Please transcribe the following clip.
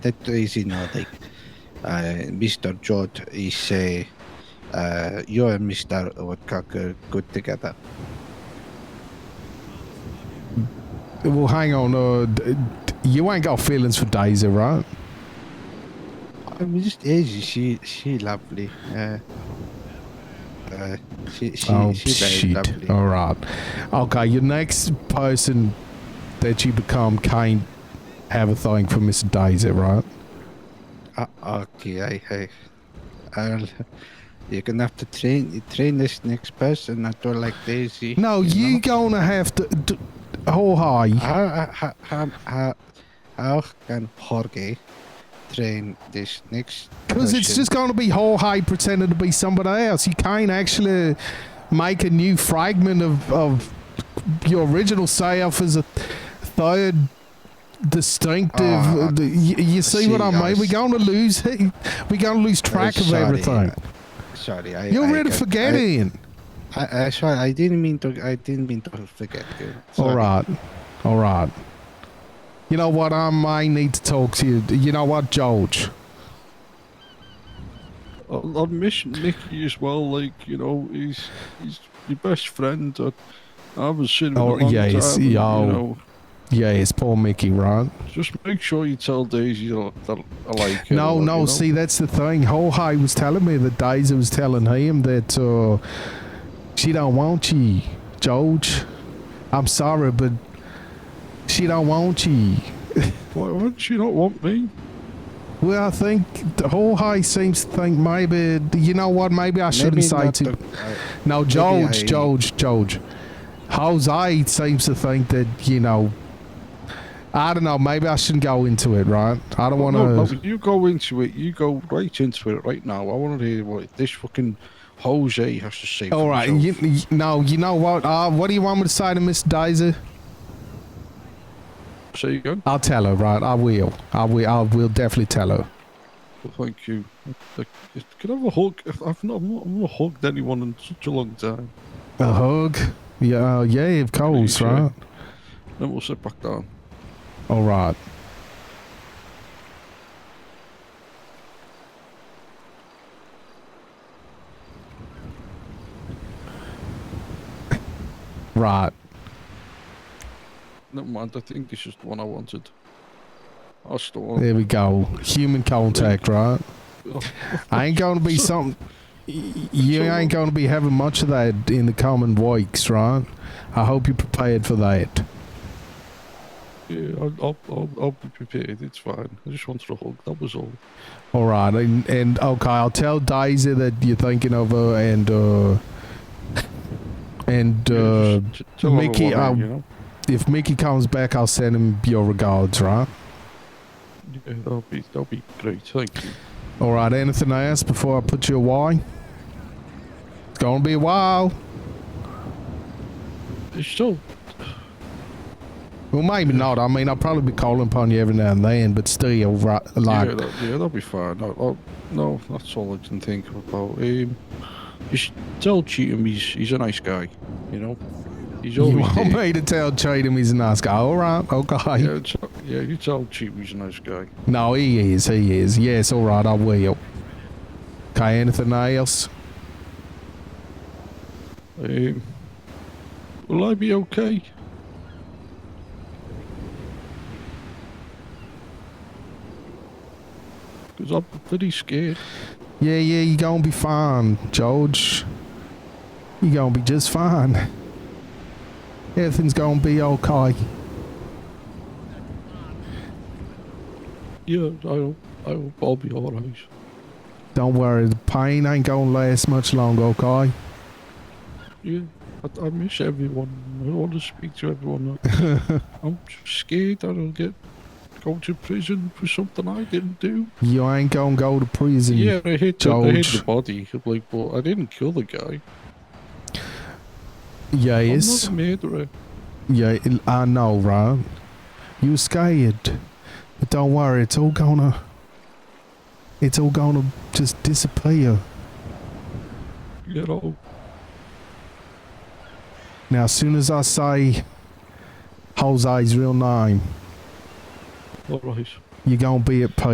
that is you know like uh, Mr. George is a uh, you and Mr. Woodcocker good together. Well, hang on. Uh, d- d- you ain't got feelings for Daisy, right? I mean, just easy. She she lovely. Uh, uh, she she, oh she very lovely. shit! All right. Okay, your next person that you become can't have a thing for Miss Daisy, right? Uh, okay, I, I, I'll, you're gonna have to train train this next person. I don't like Daisy. No, you know? gonna have to. D- oh hi. How how how how, how can Jorge train this next? Because it's just going to be Jorge pretending to be somebody else. You can't actually make a new fragment of, of your original self as a third distinctive. Ah, the, you, you see, what see, I mean? I We're s- going to lose. We're going to lose track of sorry, everything. Sorry, I. You're I ready got- for getting. I, I, I sorry, I didn't mean to. I didn't mean to forget you. All Sorry. right, all right. You know what? I might need to talk to you. You know what, George? I'll, I'll miss Nicky as well. Like you know, he's he's your best friend. I, I haven't seen him Oh, in a long yeah, he's- time. and, yeah. You know, Yeah, it's poor Mickey, right? just make sure you tell Daisy that I I like her. No, you no. know? See, that's the thing. Jorge was telling me that Daisy was telling him that uh, she don't want you, George. I'm sorry, but she don't want you. Why would she not want me? Well, I think Jorge seems to think maybe you know what? Maybe I shouldn't Maybe say not to. the- I- no, George, I- George, George. Jose seems to think that you know. I don't know. Maybe I shouldn't go into it, right? I don't want to. No, no, you go into it. You go right into it right now. I want to hear what this fucking Jose has to say. for All right. himself. You, you, no, you know what? Uh, what do you want me to say to Miss Daisy? Say again. I'll tell her, right? I will. I will. I will definitely tell her. Well, thank you. Like, Can I have a hug? I've not, I've not, I've not hugged anyone in such a long time. A hug? Yeah, uh, yeah, of course, Appreciate right? Then we'll sit back down. All right. Right. Never mind. I think this is nou, the one I wanted. I still want There we go. Human contact, right? Oh. I ain't going to be something. You So- ain't going to be having much of that in the coming weeks, right? I hope you're prepared for that. Yeah, I'll, I'll, I'll, I'll be prepared. It's fine. I just wanted a hug. That was all. All right, and, and okay, I'll tell Daisy that you're thinking of her, and uh, and Yeah, uh, just t- tell her I Mickey, want her, um, you know? if Mickey comes back, I'll send him your regards, right? Yeah, that'll be that'll be great. Thank you. All right, anything else before I put you away? It's gonna be a while. It's still Well, maybe not. I mean, I'll probably be calling upon you every now and then, but still, right, like, yeah, that, yeah, that'll be fine. I, I, no, that's all I can think about. Um, just tell Cheatham he's he's a nice guy. You know, he's you always want there. me to tell Cheatham he's a nice guy? All right, okay. Yeah, tell, yeah, you tell Cheatham he's a nice guy. No, he is. He is. Yes, all right, I will. Okay, anything else? Um, will I be okay? Because I'm pretty scared. Yeah, yeah, you're gonna be fine, George. You're gonna be just fine. Everything's gonna be okay. Yeah, I hope, I hope I'll be alright. Don't worry, the pain ain't gonna last much longer, okay? Yeah, I, I miss everyone. I want to speak to everyone. I'm scared that I'll get go to prison for something I didn't do. You ain't gonna go to prison. Yeah, I hit the, I hit the George. body. Like, but I didn't kill the guy. Yes. I'm not a murderer. Yeah, I- I know, right? You scared, but don't worry, it's all gonna, it's all gonna just disappear. You know, Now, as soon as I say Jose's real name, alright. you're gonna be at peace.